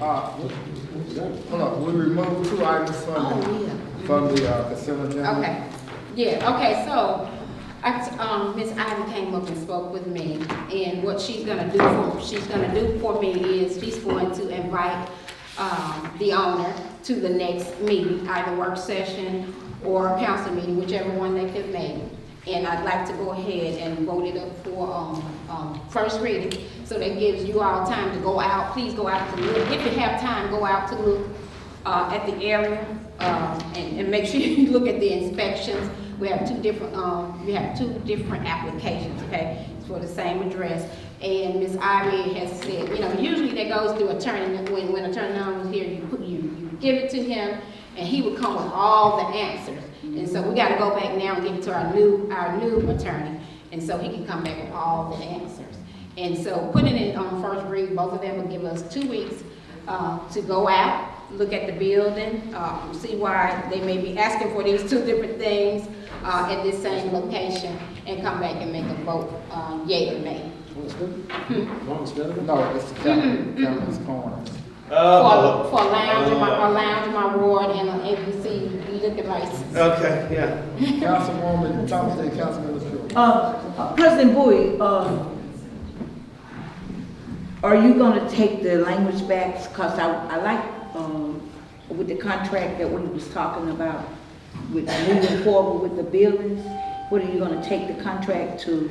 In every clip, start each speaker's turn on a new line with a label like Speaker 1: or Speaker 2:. Speaker 1: Uh, hold on, we removed two items from,
Speaker 2: Oh,
Speaker 1: the- from the uh, consent agenda.
Speaker 2: Okay, yeah, okay, so, I, t- um, Ms. Ivy came up and spoke with me, and what she's gonna do for, she's gonna do for me is, she's going to invite, um, the owner to the next meeting, either work session or council meeting, whichever one they could make. And I'd like to go ahead and vote it up for, um, um, first reading, so that gives you all time to go out, please go out to look, if you have time, go out to look, uh, at the area, uh, and, and make sure you look at the inspections. We have two different, um, we have two different applications, okay, for the same address. And Ms. Ivy has said, you know, usually that goes through attorney, when, when attorney Allen was here, you put, you, you give it to him, and he would come with all the answers. And so we gotta go back now and give it to our new, our new attorney, and so he can come back with all the answers. And so putting it on first read, both of them will give us two weeks uh, to go out, look at the building, uh, see why they may be asking for these two different things uh, at this same location, and come back and make a vote, uh, yea or nay. Mm-hmm,
Speaker 1: No, it's the Captain, Captain's Corner.
Speaker 2: For
Speaker 3: Oh,
Speaker 2: for lounge, in my, a lounge in my ward and uh, an ABC liquor license.
Speaker 3: okay, yeah.
Speaker 1: Councilwoman Thompson, and Councilman Shaw.
Speaker 4: Uh, President Bowie, uh, are you gonna take the language back? Cause I, I like, um, with the contract that we was talking about, with moving forward with the buildings, what are you gonna take the contract to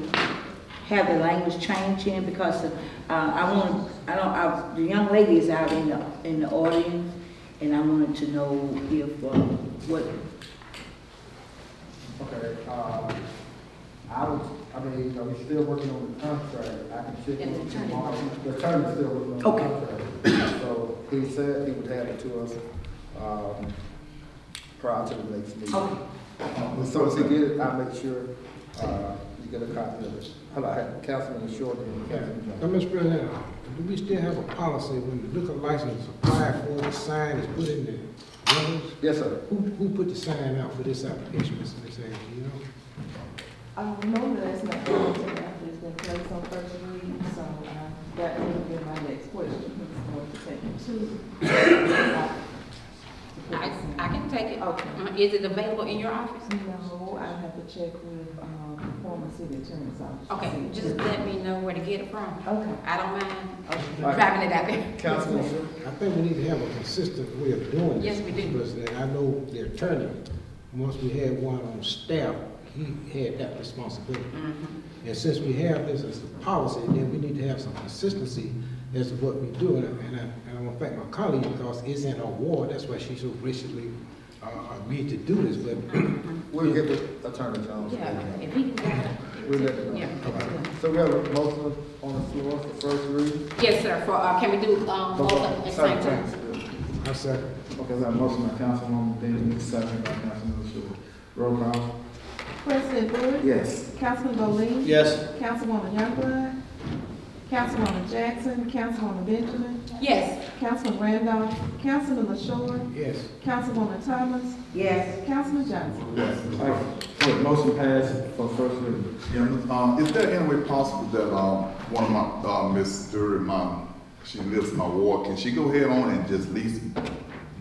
Speaker 4: have the language change in? Because, uh, I wanna, I don't, I, the young lady is out in the, in the audience, and I wanted to know if, uh, what,
Speaker 1: Okay, um, I was, I mean, you know, we're still working on the contract, I can check
Speaker 2: And the
Speaker 1: with
Speaker 2: attorney.
Speaker 1: tomorrow. The attorney's still working on the
Speaker 4: Okay.
Speaker 1: contract. So he said he would have it to us, um, prior to the next meeting.
Speaker 4: Okay.
Speaker 1: Um, So as he get it, I'll make sure, uh, you get a copy of it. Hello, I had Councilman Short and Councilman
Speaker 5: Now,
Speaker 1: Johnson.
Speaker 5: Mr. President, do we still have a policy when the liquor license is applied for, the sign is put in the windows?
Speaker 1: Yes, sir.
Speaker 5: Who, who put the sign out for this application, Mr. Ms. Angie, you know?
Speaker 6: I remember that's not going to after it's been placed on first read, so uh, that would be my next question. It's going to take two.
Speaker 2: I, I can take it.
Speaker 6: Okay.
Speaker 2: Uh, Is it available in your office?
Speaker 6: No, I have to check with, um, former city attorney's office.
Speaker 2: Okay, just let me know where to get it from.
Speaker 6: Okay.
Speaker 2: I don't mind
Speaker 1: All right.
Speaker 2: driving it out there.
Speaker 1: Councilman Shaw.
Speaker 5: I think we need to have a consistent way of doing this.
Speaker 2: Yes, we
Speaker 5: Mr.
Speaker 2: do.
Speaker 5: President, I know the attorney, once we had one on staff, he had that responsibility.
Speaker 2: Mm-hmm.
Speaker 5: And since we have this as a policy, then we need to have some consistency as to what we do. And I, and I- and I want to thank my colleague because it's in our ward, that's why she so graciously, uh, agreed to do this, but
Speaker 1: We'll get the attorney Jones.
Speaker 2: Yeah, if he can get it.
Speaker 1: We'll let it
Speaker 2: Yeah.
Speaker 1: know. So we have a motion on the floor for first reading.
Speaker 2: Yes, sir, for, uh, can we do, um, both of them at the same time?
Speaker 5: I second.
Speaker 1: Okay, so a motion by Councilwoman Dennis, second by Councilman Shaw. Roll call.
Speaker 6: President Bowie?
Speaker 1: Yes.
Speaker 6: Councilman Bowe?
Speaker 3: Yes.
Speaker 6: Councilwoman Youngblood? Councilwoman Jackson? Councilwoman Benjamin?
Speaker 2: Yes,
Speaker 6: Councilman Randolph? Councilman LaShaw?
Speaker 5: Yes.
Speaker 6: Councilwoman Thomas?
Speaker 4: yes?
Speaker 6: Councilman Johnson?
Speaker 7: Yes, Alright. So the motion passed for first reading.
Speaker 8: Yeah, um, is there any way possible that, um, one of my, uh, Miss Dury, my, she lives in my ward, can she go ahead on and just lease,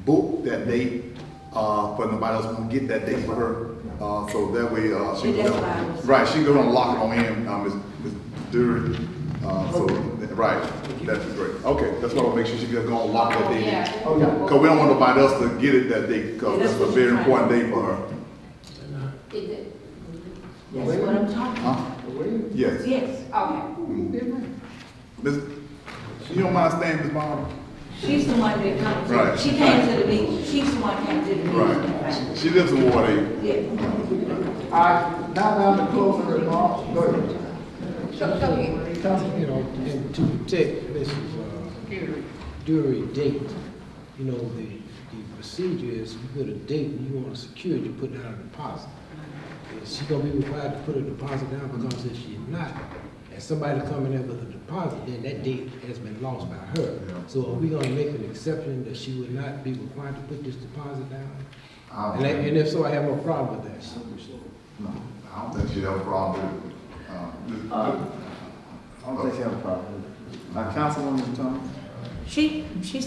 Speaker 8: book that date, uh, for nobody else can get that date for her? Uh, so that way, uh, she.
Speaker 4: See, that's why I was-
Speaker 8: Right, she gonna lock it on in, uh, Miss Ms. Dury, uh, so, right, that'd be great. Okay, that's why I'll make sure she gonna go and lock that
Speaker 2: oh,
Speaker 8: date in.
Speaker 2: yeah.
Speaker 1: Oh, yeah.
Speaker 8: Cause we don't want nobody else to get it that day, cause
Speaker 4: That's
Speaker 8: that's a
Speaker 4: what she's
Speaker 8: very
Speaker 4: trying
Speaker 8: important day for her.
Speaker 2: Is it,
Speaker 4: That's what I'm talking about.
Speaker 8: Huh?
Speaker 1: Wait,
Speaker 8: Yes.
Speaker 4: Yes,
Speaker 2: okay,
Speaker 8: Miss, you don't mind staying, Miss Mom?
Speaker 4: she's the one that comes,
Speaker 8: Right.
Speaker 4: in. she came to the meeting, she's the one came to the meeting.
Speaker 8: Right. She lives in Ward Eight.
Speaker 4: Yeah.
Speaker 1: All right, now down to closing remarks. Go ahead.
Speaker 2: go, go ahead.
Speaker 5: you know, and to protect Mrs. Dury date, you know, the, the procedure is you put a date when you want to secure it, you put down a deposit. Is she gonna be required to put a deposit down because if she's not, and somebody coming in with a deposit, then that date has been lost by her. So are we gonna make an exception that she would not be required to put this deposit down?
Speaker 8: I don't
Speaker 5: And I-
Speaker 8: think-
Speaker 5: and if so, I have no problem with that.
Speaker 8: no, I don't think she'd have a problem with it. Um,
Speaker 1: I don't think you have a problem. Uh, Councilwoman Thomas?
Speaker 4: She, she